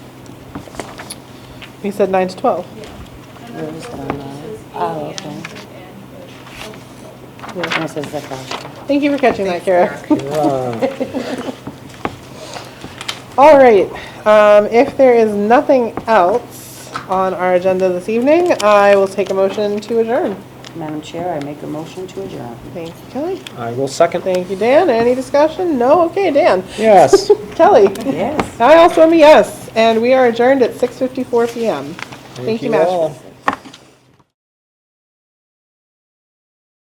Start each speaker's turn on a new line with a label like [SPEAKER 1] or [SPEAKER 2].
[SPEAKER 1] He said nine to 12.
[SPEAKER 2] Where is the line? Oh, okay. This is the question.
[SPEAKER 1] Thank you for catching that, Kara.
[SPEAKER 3] Right.
[SPEAKER 1] All right, um, if there is nothing else on our agenda this evening, I will take a motion to adjourn.
[SPEAKER 2] Madam Chair, I make a motion to adjourn.
[SPEAKER 1] Thank you, Kelly.
[SPEAKER 3] I will second.
[SPEAKER 1] Thank you, Dan. Any discussion? No? Okay, Dan.
[SPEAKER 3] Yes.
[SPEAKER 1] Kelly?
[SPEAKER 2] Yes.
[SPEAKER 1] I also am a yes, and we are adjourned at 6:54 PM. Thank you, Madam.
[SPEAKER 3] all.